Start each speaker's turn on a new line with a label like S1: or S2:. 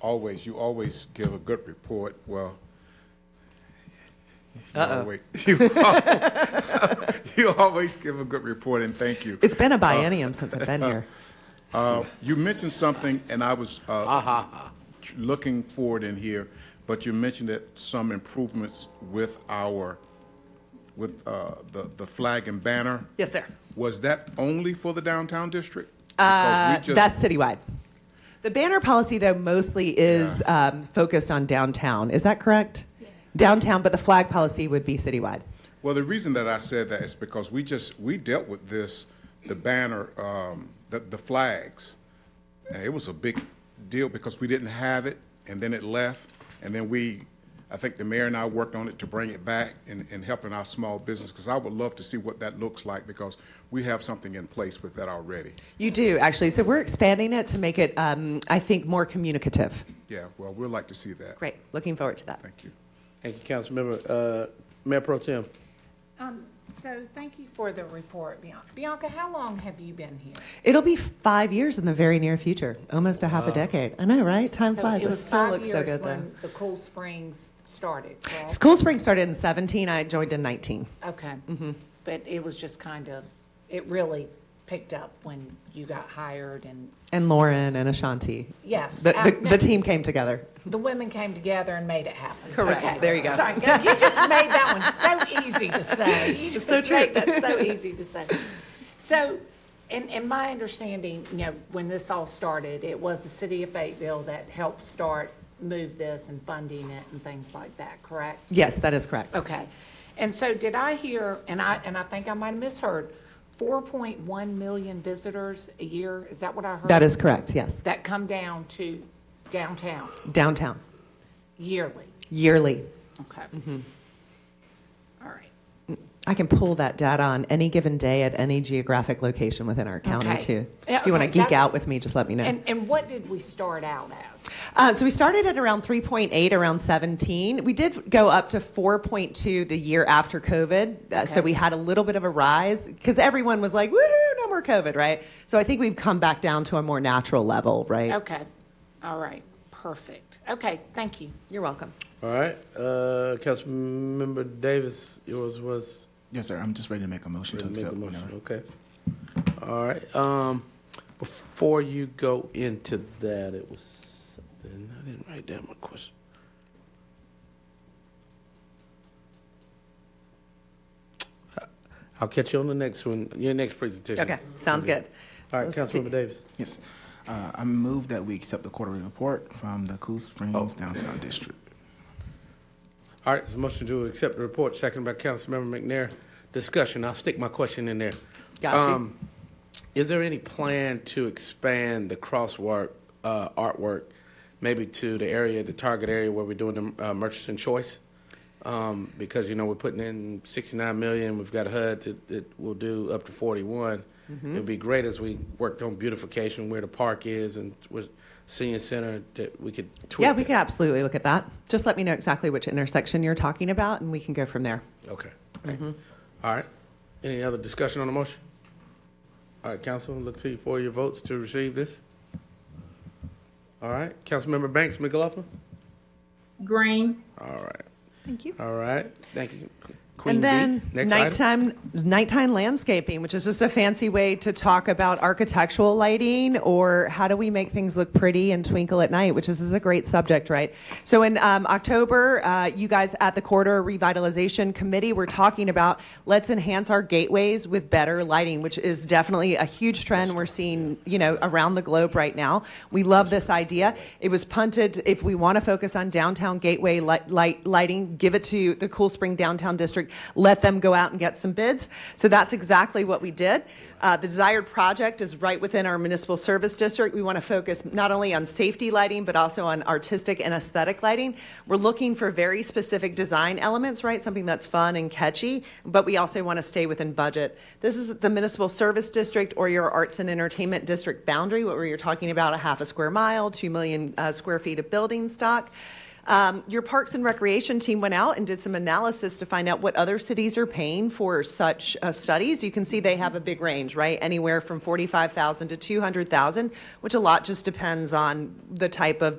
S1: always, you always give a good report, well. you
S2: Uh-oh.
S1: always- You al- you always give a good report, and thank you.
S2: It's been a biennium since I've been here.
S1: Uh, You mentioned something, and I was uh, tr- looking for it in here, but you mentioned that some improvements with our, with uh, the the flag and banner.
S2: Yes, sir.
S1: Was that only for the downtown district?
S2: Uh,
S1: Because we
S2: that's
S1: just
S2: citywide. The banner policy, though, mostly is um, focused on downtown. Is that correct? Downtown, but the flag policy would be citywide.
S1: Well, the reason that I said that is because we just, we dealt with this, the banner, um, the, the flags. And it was a big deal because we didn't have it and then it left. And then we, I think the mayor and I worked on it to bring it back and, and helping our small business. Because I would love to see what that looks like because we have something in place with that already.
S2: You do, actually. So we're expanding it to make it, um, I think, more communicative.
S1: Yeah, well, we'd like to see that.
S2: Great. Looking forward to that.
S1: Thank you.
S3: Thank you, Councilmember. Uh, Mayor Pro Tem,
S4: Um, so thank you for the report, Bianca. Bianca, how long have you been here?
S2: It'll be five years in the very near future, almost a half a decade. I know, right? Time flies.
S4: So
S2: It,
S4: was
S2: still
S4: five
S2: looks so
S4: years
S2: good, though.
S4: when The Cool Springs started, correct?
S2: School spring started in 17. I joined in 19.
S4: Okay.
S2: Mm-hmm.
S4: But it was just kind of, it really picked up when you got hired and,
S2: And Lauren and Ashanti.
S4: yes.
S2: The,
S4: I-
S2: the, the team came together.
S4: The women came together and made it happen.
S2: Correct.
S4: Okay.
S2: There you go.
S4: Sorry, you just made that one so easy to say. You just
S2: so true.
S4: made that so easy to say. So, in, in my understanding, you know, when this all started, it was the city of Fayetteville that helped start, move this and funding it and things like that, correct?
S2: Yes, that is correct.
S4: Okay. And so did I hear, and I, and I think I might have misheard, 4.1 million visitors a year? Is that what I heard?
S2: That is correct, yes.
S4: That come down to downtown
S2: Downtown,
S4: yearly?
S2: yearly.
S4: Okay. All right.
S2: I can pull that data on any given day at any geographic location within our county,
S4: Okay.
S2: too.
S4: Yeah,
S2: If you want to
S4: okay,
S2: geek out
S4: that's-
S2: with me, just let me know.
S4: And, and what did we start out as?
S2: Uh, so we started at around 3.8, around 17. We did go up to 4.2 the year after COVID. Uh, So
S4: Okay.
S2: we had a little bit of a rise because everyone was like, woohoo, no more COVID, right? So I think we've come back down to a more natural level, right?
S4: Okay. All right. Perfect. Okay. Thank you.
S2: You're welcome.
S3: all right. Uh, Councilmember Davis, yours was
S5: Yes, sir. I'm just ready to make a motion to
S3: make a
S5: accept.
S3: motion,
S5: whenever.
S3: okay? All right, um, before you go into that, it was something, I didn't write down my question. I'll catch you on the next one, your next presentation.
S2: Okay, sounds good.
S3: All right,
S2: Let's see.
S3: Councilmember Davis.
S5: Yes. Uh, I move that we accept the quarterly report from the Cool
S3: Oh.
S5: Springs Downtown District.
S3: All right, there's a motion to accept the report, seconded by Councilmember McNair. Discussion, I'll stick my question in there.
S2: Got you.
S3: Um, Is there any plan to expand the crosswalk uh, artwork, maybe to the area, the target area where we're doing the uh, Murchison Choice? Um, Because, you know, we're putting in 69 million, we've got HUD that, that will do up to 41.
S2: Mm-hmm.
S3: It'd be great as we worked on beautification, where the park is and with senior center, that we could tweak
S2: Yeah, we
S3: that.
S2: could absolutely look at that. Just let me know exactly which intersection you're talking about, and we can go from there.
S3: Okay. thanks. All right. Any other discussion on the motion? All right, council, look to you for your votes to receive this. All right, Councilmember Banks, McLaughlin?
S6: Green,
S3: All right,
S2: Thank you.
S3: all right. Thank you, Queen
S2: And
S3: B.
S2: then
S3: Next item.
S2: nighttime, nighttime landscaping, which is just a fancy way to talk about architectural lighting or how do we make things look pretty and twinkle at night, which is, is a great subject, right? So in um, October, uh, you guys at the Corridor Revitalization Committee were talking about let's enhance our gateways with better lighting, which is definitely a huge trend we're seeing, you know, around the globe right now. We love this idea. It was punted. If we want to focus on downtown gateway light, light lighting, give it to the Cool Spring Downtown District. Let them go out and get some bids. So that's exactly what we did. Uh, the desired project is right within our municipal service district. We want to focus not only on safety lighting, but also on artistic and aesthetic lighting. We're looking for very specific design elements, right? Something that's fun and catchy, but we also want to stay within budget. This is the municipal service district or your arts and entertainment district boundary, where you're talking about a half a square mile, 2 million uh, square feet of building stock. Um, your Parks and Recreation team went out and did some analysis to find out what other cities are paying for such uh, studies. You can see they have a big range, right? Anywhere from 45,000 to 200,000, which a lot just depends on the type of